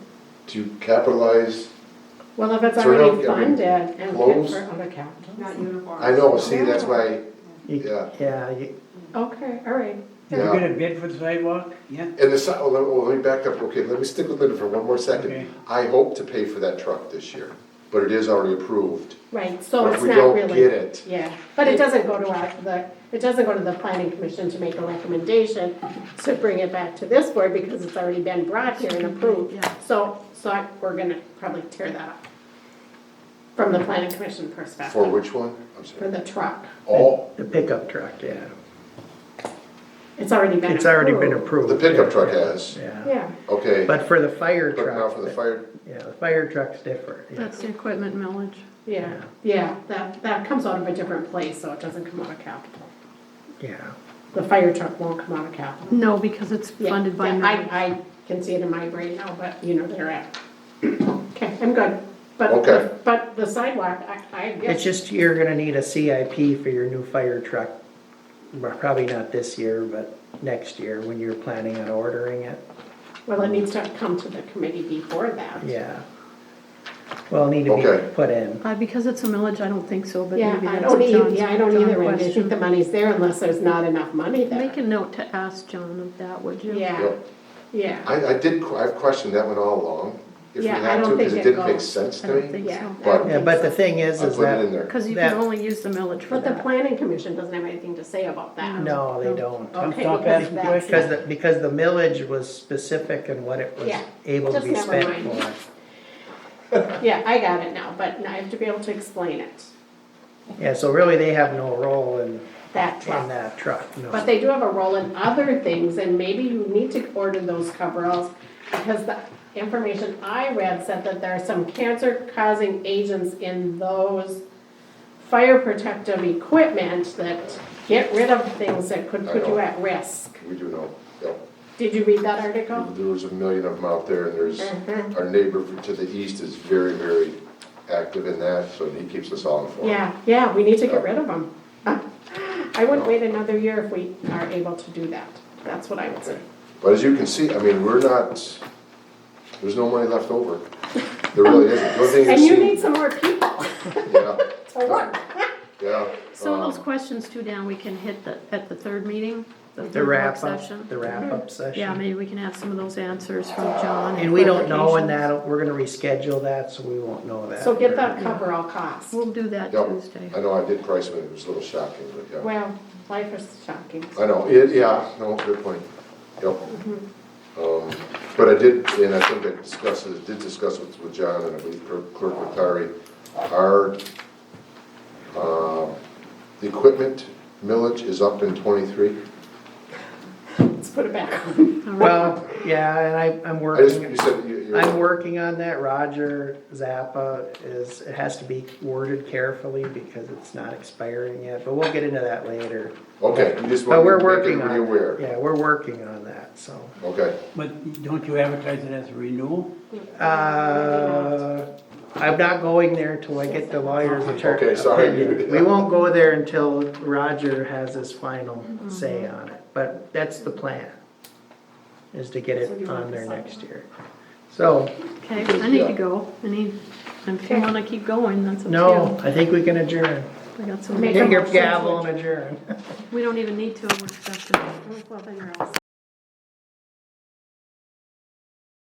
to capitalize, Well, if it's Sort of, already I mean, funded and good clothes. for other capitals. not uniforms. I know, see, that's why, You- Yeah. Yeah, you- Okay, all right. you're Yeah. gonna bid for the sidewalk? Yeah, and the, si- oh, let, oh, let me back up, okay, let me stick with Linda for one more Okay. second. I hope to pay for that truck this year, but it is already approved. Right, so But it's if we not don't get really, it, yeah, but it doesn't go to our, the, it doesn't go to the planning commission to make a recommendation to bring it back to this board because it's already been brought here and approved. Yeah. So, so I- we're gonna probably tear that up from the planning commission for perspective, which one? I'm for sorry. the truck. Oh, the pickup truck, yeah. It's already been It's already been approved. approved. The pickup truck yeah, has. Yeah, Yeah, okay, but but for the fire truck. now for the fire, Yeah, the fire truck's different, yeah. That's the equipment millage. yeah, yeah, that, that comes out of a different place, so it doesn't come out of capital. yeah. The fire truck won't come out of capital. No, because it's Yeah, funded by yeah, millage. I, I can see it in my brain now, but you know, they're at. Okay, I'm good. Okay. But, but the sidewalk, I, I It's guess, just, you're gonna need a CIP for your new fire truck. Well, Probably not this year, but next year when you're planning on ordering it, well, it needs to come to the committee before that. yeah. Well, need to Okay. be put in. Uh, because it's a millage, I don't think so, but Yeah, maybe I that's a don't either, John's, yeah, I don't John either, Randy. I think the question. money's there unless there's not enough money Make there. a note to ask John of that, would you? Yeah, Yep. yeah, I, I did, que- I've questioned that one all along, if we Yeah, I had to, don't because think it it didn't make goes. sense I to don't me. think so. yeah. I But- don't Yeah, think but so. the thing I is, is put it in that, there. Cause you can That- only use the millage for But the that. planning commission doesn't have anything to say about that. no, they don't. Okay, Stop because asking that's- questions. Because, the- because the millage was specific in what it was Yeah, able to just be never spent mind. for. Yeah, I got it now, but I have to be able to explain it, Yeah, so really they have no role in, that truck. in that truck, no. But they do have a role in other things, and maybe you need to order those coveralls, because the information I read said that there are some cancer-causing agents in those fire protective equipment that get rid of things that could put you at risk. We do know, yep. Did you read that article? There was a million of them out there, and there's, Mhm. our neighbor to the east is very, very active in that, so he keeps us all informed. Yeah, yeah, we need to get rid of them. I wouldn't wait another year if we are able to do that, that's what I would say. But as you can see, I mean, we're not, there's no money left over. There really isn't. The only thing And you need is- some more people Yeah, to work. yeah. So um, those questions too, Dan, we can hit the, at the third meeting, the The third work wrap up, session. the wrap Mm-hmm. up session. Yeah, maybe we can have some of those answers from John. And we don't know when clarifications. that, we're gonna reschedule that, so we won't know that. So get that coverall cost. We'll do that Yep. Tuesday. I know, I did price it, it was a little shocking, but yeah. Well, life is shocking. I know, it, yeah, no, good point. Yep. Um, But I did, and I think I discussed, it. did discuss with, with John and I believe Clerk Clerk Matari, our, um, the equipment millage is up in twenty-three. Let's put it back on. All right. Well, yeah, and I, I'm I just, you working, said you, you're. I'm working on that, Roger Zappa is, it has to be worded carefully because it's not expiring yet, but we'll get into that later. Okay, you just want But me to we're make working on, everybody aware. yeah, we're working on that, so. Okay, But don't you advertise it as a renewal? Uh, I'm not going there until I get the lawyer's attorney. Okay, sorry. We won't go there until Roger has his final say on it, but that's the plan, is to get So you it want the on there sidewalk? next year. So, Okay, I need to go. I need, if you wanna keep going, that's up to you. no, I think we can adjourn. I got some, Make Take your motion to gavel and adjourn. we don't even need to, we're discussing. Well, then you're all set.